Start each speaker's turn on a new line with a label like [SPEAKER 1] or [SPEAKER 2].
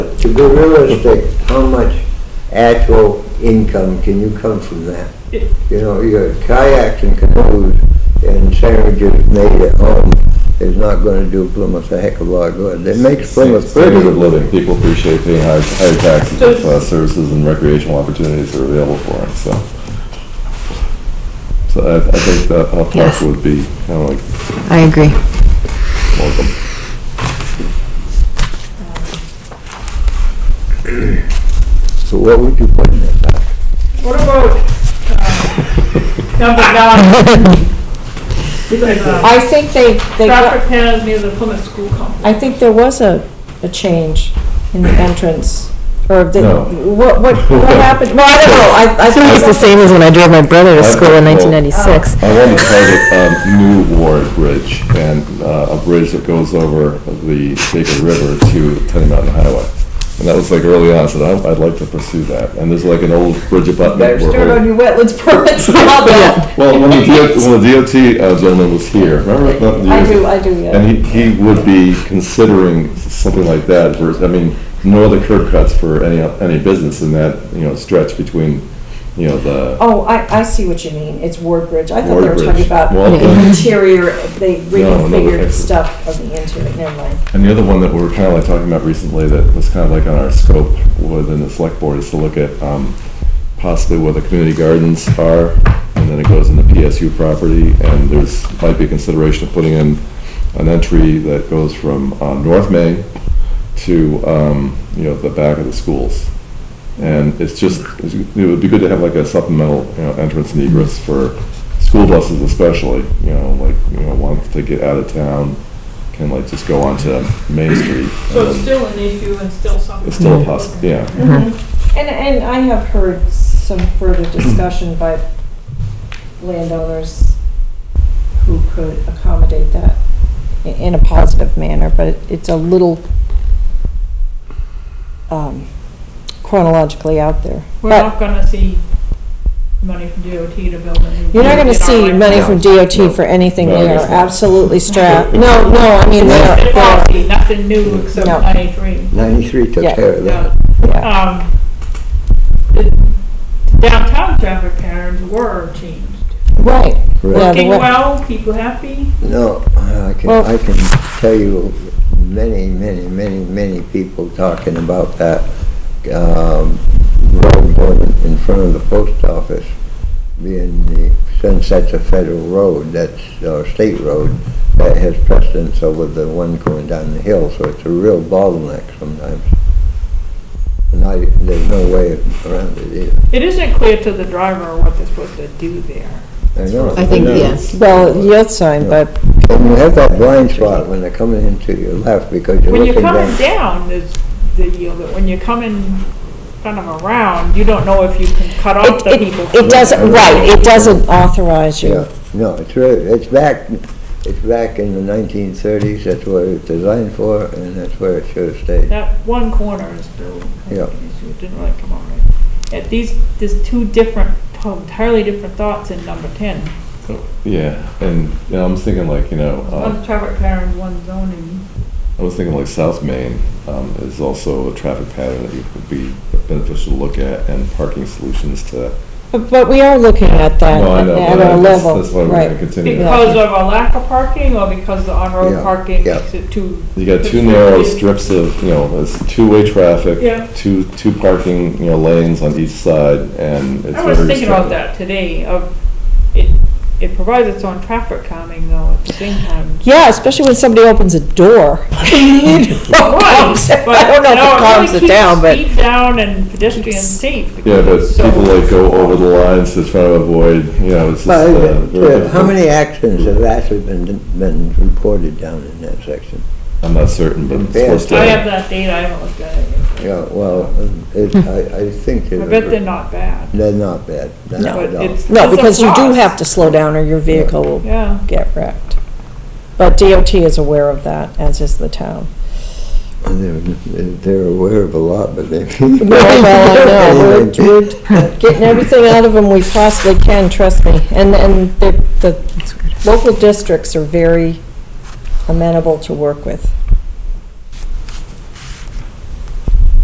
[SPEAKER 1] to be realistic, how much actual income can you come from that? You know, your kayaks and canoes and sandwiches made at home is not gonna do Plymouth a heck of a lot of good. It makes Plymouth
[SPEAKER 2] Standard of
[SPEAKER 1] pretty.
[SPEAKER 2] living, people appreciate paying higher, higher taxes
[SPEAKER 3] So-
[SPEAKER 2] if uh, services and recreational opportunities are available for them, so. So I, I think that Hop Park
[SPEAKER 4] Yes.
[SPEAKER 2] would be kind of like
[SPEAKER 4] I agree.
[SPEAKER 2] welcome.
[SPEAKER 1] So what would you put in it?
[SPEAKER 3] What about, uh, number nine? Because, uh,
[SPEAKER 5] I think they, they, got-
[SPEAKER 3] Traffic patterns near the Plymouth School complex.
[SPEAKER 5] I think there was a, a change in the entrance, or the,
[SPEAKER 2] No.
[SPEAKER 5] what, what, what happened? Well, I don't know, I, I
[SPEAKER 4] I think it's the
[SPEAKER 5] think,
[SPEAKER 4] same as when I drove my brother to
[SPEAKER 2] I've
[SPEAKER 4] school in
[SPEAKER 2] got-
[SPEAKER 4] 1996.
[SPEAKER 2] I want to target um, New Ward Bridge and uh, a bridge that goes over the Sacred River to Tenny Mountain Highway. And that was like early on, I said, "Oh, "I'd- I'd like to pursue that. And there's like an old bridge abutment.
[SPEAKER 5] better
[SPEAKER 2] where
[SPEAKER 5] start
[SPEAKER 2] old-
[SPEAKER 5] on your wetlands permits now, though.
[SPEAKER 2] Well, when the DOT, when the DOT uh, gentleman was here, remember? that?
[SPEAKER 5] I do, I do, yeah.
[SPEAKER 2] And he, he would be considering something like that, versus, I mean, no other curb cuts for any, any business in that, you know, stretch between, you know, the,
[SPEAKER 5] Oh, I, I see what you mean, it's Ward Bridge, I thought they were
[SPEAKER 2] Ward
[SPEAKER 5] talking
[SPEAKER 2] Bridge.
[SPEAKER 5] about
[SPEAKER 2] Well,
[SPEAKER 5] the
[SPEAKER 2] the-
[SPEAKER 5] interior, they
[SPEAKER 2] No, no,
[SPEAKER 5] reconfigured
[SPEAKER 2] it's-
[SPEAKER 5] stuff of the interior, never mind.
[SPEAKER 2] and the other one that we were kind of like talking about recently that was kind of like on our scope within the select board is to look at, um, possibly where the community gardens are, and then it goes into PSU property, and there's, might be consideration of putting in an entry that goes from, uh, North Main to, um, you know, the back of the schools. And it's just, it's- it would be good to have like a supplemental, you know, entrance and egress for school buses especially, you know, like, you know, once they get out of town, can like just go onto Main Street.
[SPEAKER 3] So it's
[SPEAKER 2] and
[SPEAKER 3] still an issue and still something.
[SPEAKER 2] It's still a poss, yeah.
[SPEAKER 3] Mm-hmm.
[SPEAKER 5] And, and I have heard some further discussion by landowners who could accommodate that i- in a positive manner, but it- it's a little um, chronologically out there.
[SPEAKER 3] We're
[SPEAKER 5] But
[SPEAKER 3] not gonna see money from DOT to build a new.
[SPEAKER 5] You're not gonna
[SPEAKER 3] bridge in our
[SPEAKER 5] see money
[SPEAKER 3] lifetime.
[SPEAKER 5] from
[SPEAKER 2] No.
[SPEAKER 5] DOT for anything,
[SPEAKER 2] No, I
[SPEAKER 5] they are
[SPEAKER 2] guess not.
[SPEAKER 5] absolutely strapped. No, no, I mean, they are,
[SPEAKER 3] It's
[SPEAKER 5] they are-
[SPEAKER 3] policy, nothing new except
[SPEAKER 5] No.
[SPEAKER 3] ninety-three.
[SPEAKER 1] Ninety-three took
[SPEAKER 5] Yeah.
[SPEAKER 1] care of that.
[SPEAKER 3] Yeah.
[SPEAKER 5] yeah.
[SPEAKER 3] Um, the Downtown traffic patterns were changed.
[SPEAKER 5] right. Yeah, the
[SPEAKER 3] Working
[SPEAKER 5] wa-
[SPEAKER 3] well, people happy.
[SPEAKER 1] No, I can,
[SPEAKER 5] Well-
[SPEAKER 1] I can tell you many, many, many, many people talking about that, um, road going in front of the post office being the, since that's a federal road, that's, or state road, that has precedence over the one going down the hill, so it's a real bottleneck sometimes. And I, there's no way around it either.
[SPEAKER 3] It isn't clear to the driver what they're supposed to do there.
[SPEAKER 1] I know.
[SPEAKER 4] I think,
[SPEAKER 2] Yeah.
[SPEAKER 4] yes.
[SPEAKER 5] Well, yield sign, but
[SPEAKER 1] And you have that blind spot when they're coming into your left because you're
[SPEAKER 3] When
[SPEAKER 1] looking
[SPEAKER 3] you're
[SPEAKER 1] down.
[SPEAKER 3] coming down, there's the yield, but when you're coming kind of around, you don't know if you can cut off
[SPEAKER 5] It,
[SPEAKER 3] the
[SPEAKER 5] it,
[SPEAKER 3] people.
[SPEAKER 5] it doesn't, right, it doesn't authorize you.
[SPEAKER 1] Yeah, no, it's really, it's back, it's back in the nineteen thirties, that's what it was designed for, and that's where it should have stayed.
[SPEAKER 3] That one corner is still,
[SPEAKER 1] Yeah.
[SPEAKER 3] it didn't really come out right. At these, there's two different, entirely different thoughts in number ten.
[SPEAKER 2] Yeah, and, you know, I'm just thinking like, you know, um,
[SPEAKER 1] Uh,
[SPEAKER 3] One traffic pattern, one zoning.
[SPEAKER 2] I was thinking like South Main um, is also a traffic pattern that would be beneficial to look at and parking solutions to.
[SPEAKER 5] But, but we are looking at that
[SPEAKER 2] No, I know,
[SPEAKER 5] at
[SPEAKER 2] but I
[SPEAKER 5] our
[SPEAKER 2] just-
[SPEAKER 5] level,
[SPEAKER 2] That's why we're gonna
[SPEAKER 5] right.
[SPEAKER 2] continue.
[SPEAKER 3] Because of a lack of parking or because the
[SPEAKER 1] Yeah,
[SPEAKER 3] on-road parking
[SPEAKER 1] yeah.
[SPEAKER 3] makes it too.
[SPEAKER 2] You got two narrow strips of, you know, it's two-way traffic.
[SPEAKER 3] Yeah.
[SPEAKER 2] Two, two parking, you know, lanes on each side and it's very
[SPEAKER 3] I was thinking about
[SPEAKER 2] restrictive.
[SPEAKER 3] that today, of, it, it provides its own traffic calming though at the same time.
[SPEAKER 5] Yeah, especially when somebody opens a door.
[SPEAKER 3] Right, but,
[SPEAKER 5] I don't know if
[SPEAKER 3] no,
[SPEAKER 5] it calms it
[SPEAKER 3] really
[SPEAKER 5] down, but,
[SPEAKER 3] keeps speed down and pedestrian safe.
[SPEAKER 2] Yeah, but
[SPEAKER 3] because it's so-
[SPEAKER 2] people like go over the lines to try to avoid, you know, it's just.
[SPEAKER 1] Well,
[SPEAKER 2] uh,
[SPEAKER 1] it-
[SPEAKER 2] very
[SPEAKER 1] uh, How
[SPEAKER 2] difficult.
[SPEAKER 1] many accidents have actually been, been reported down in that section?
[SPEAKER 2] I'm not certain, but it's
[SPEAKER 1] Yeah.
[SPEAKER 2] supposed to.
[SPEAKER 3] I have that data, I haven't looked at it yet.
[SPEAKER 1] Yeah, well, it, I, I think
[SPEAKER 3] I bet they're
[SPEAKER 1] they're,
[SPEAKER 3] not bad,
[SPEAKER 1] they're not bad, not
[SPEAKER 3] but
[SPEAKER 1] at all.
[SPEAKER 3] it's.
[SPEAKER 5] no,
[SPEAKER 3] it's a
[SPEAKER 5] because you do
[SPEAKER 3] plus.
[SPEAKER 5] have to slow down or your vehicle will
[SPEAKER 3] Yeah,
[SPEAKER 5] get wrecked. But DOT is aware of that, as is the town.
[SPEAKER 1] They're, they're aware of a lot, but they.
[SPEAKER 5] Well, well, I know, we're, we're getting everything out of them we possibly can, trust me. And, and the, the local districts are very amenable to work with.